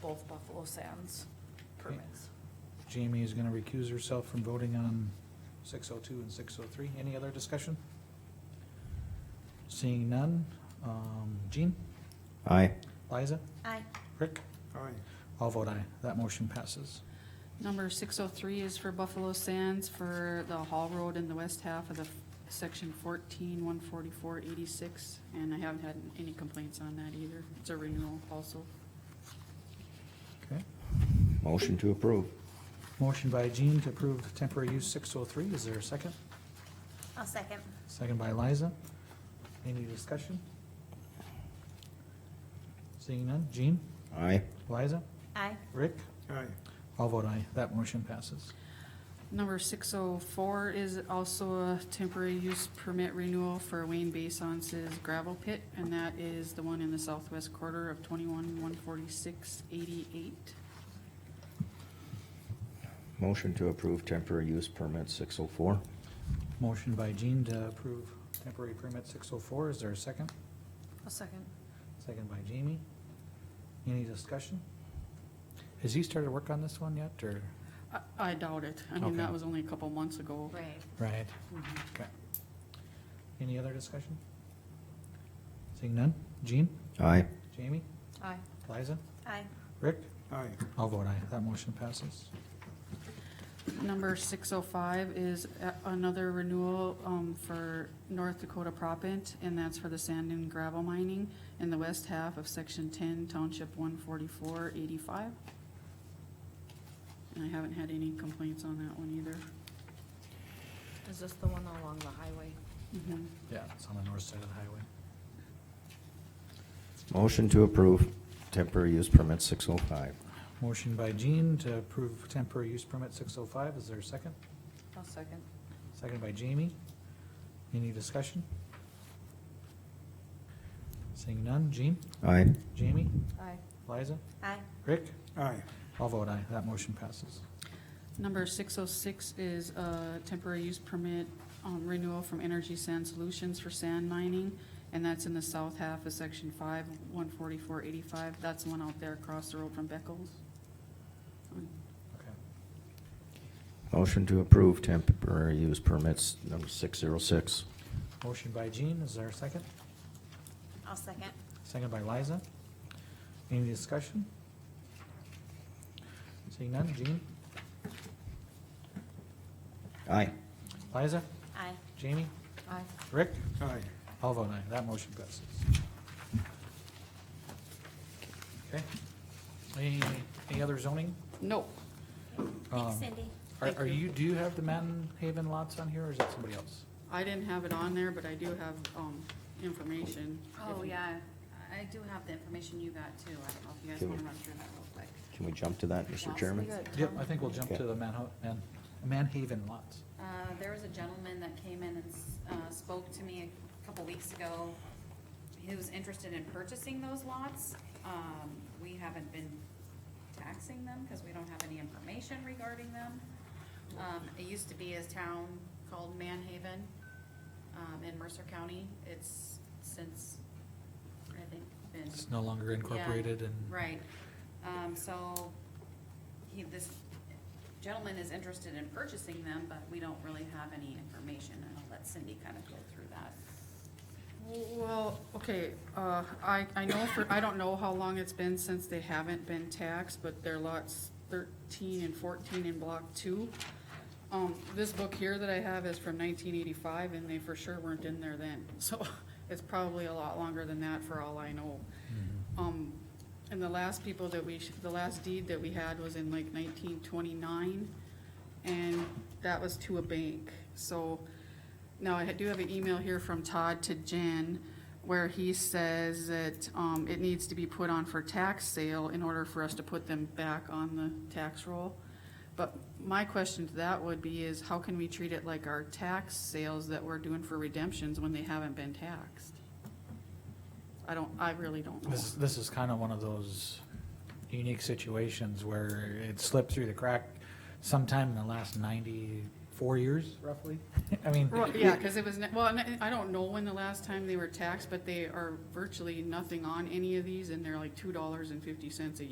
both Buffalo Sands permits. Jamie is gonna recuse herself from voting on six oh two and six oh three. Any other discussion? Seeing none, um, Jean, Aye. Liza, Aye. Rick, Aye. all vote aye. That motion passes. Number six oh three is for Buffalo Sands for the Hall Road in the west half of the f- section fourteen, one forty-four, eighty-six. And I haven't had any complaints on that either. It's a renewal also. Okay. Motion to approve. Motion by Jean to approve temporary use six oh three. Is there a second? I'll second. Second by Liza. Any discussion? Seeing none, Jean, Aye. Liza, Aye. Rick, Aye. all vote aye. That motion passes. Number six oh four is also a temporary use permit renewal for Wayne Bason's gravel pit, and that is the one in the southwest quarter of twenty-one, one forty-six, eighty-eight. Motion to approve temporary use permit six oh four. Motion by Jean to approve temporary permit six oh four. Is there a second? I'll second. Second by Jamie. Any discussion? Has he started work on this one yet, or? I, I doubt it. I mean, Okay. that was only a couple months ago. Right. Right. Okay. Any other discussion? Seeing none? Jean, Aye. Jamie, Aye. Liza, Aye. Rick? Aye. I'll vote aye. That motion passes. Number six oh five is a- another renewal, um, for North Dakota Propent, and that's for the sand and gravel mining in the west half of section ten, township one forty-four eighty-five. And I haven't had any complaints on that one either. Is this the one along the highway? Mhm. Yeah, it's on the north side of the highway. Motion to approve temporary use permit six oh five. Motion by Jean to approve temporary use permit six oh five. Is there a second? I'll second. Second by Jamie. Any discussion? Seeing none, Jean, Aye. Jamie, Aye. Liza, Aye. Rick, Aye. all vote aye, that motion passes. Number six oh six is a temporary use permit um, renewal from Energy Sand Solutions for sand mining, and that's in the south half of section five, one forty-four eighty-five. That's the one out there across the road from Beckles. Okay. Motion to approve temporary use permits number six zero six. Motion by Jean, is there a second? I'll second. Second by Liza. Any discussion? Seeing none, Jean, Aye. Liza, Aye. Jamie, Aye. Rick, Aye. all vote aye, that motion passes. Okay. Any, any other zoning? No, Um, Thanks, Cindy. Are, Thank are you. you, do you have the Manton Haven lots on here, or is that somebody else? I didn't have it on there, but I do have, um, information. Oh, yeah, I do have the information you got too, I don't know if you guys Can we- wanna run through that real quick. Can we jump to that, Mr. We Chairman? got Yep, Tom. I think we'll jump to the Manho, Man, Manhaven lots. Uh, there was a gentleman that came in and, s- uh, spoke to me a couple weeks ago. He was interested in purchasing those lots. Um, we haven't been taxing them because we don't have any information regarding them. Um, it used to be a town called Manhaven, um, in Mercer County. It's since, I think, been. It's no longer Yeah, incorporated and, Right, um, so, he, this gentleman is interested in purchasing them, but we don't really have any information, and I'll let Cindy kind of go through that. Well, okay, uh, I, I know for, I don't know how long it's been since they haven't been taxed, but they're lots thirteen and fourteen in block two. Um, this book here that I have is from nineteen eighty-five, and they for sure weren't in there then, so it's probably a lot longer than that for all I know. Um, and the last people that we, sh- the last deed that we had was in like nineteen twenty-nine, and that was to a bank, so. Now, I do have an email here from Todd to Jen, where he says that, um, it needs to be put on for tax sale in order for us to put them back on the tax roll. But my question to that would be is, how can we treat it like our tax sales that we're doing for redemptions when they haven't been taxed? I don't, I really don't know. this, this is kind of one of those unique situations where it slipped through the crack sometime in the last ninety-four years, roughly. I mean, Well, yeah, cause it was, ne- well, and I- I don't know when the last time they were taxed, but they are virtually nothing on any of these, and they're like two dollars and fifty cents a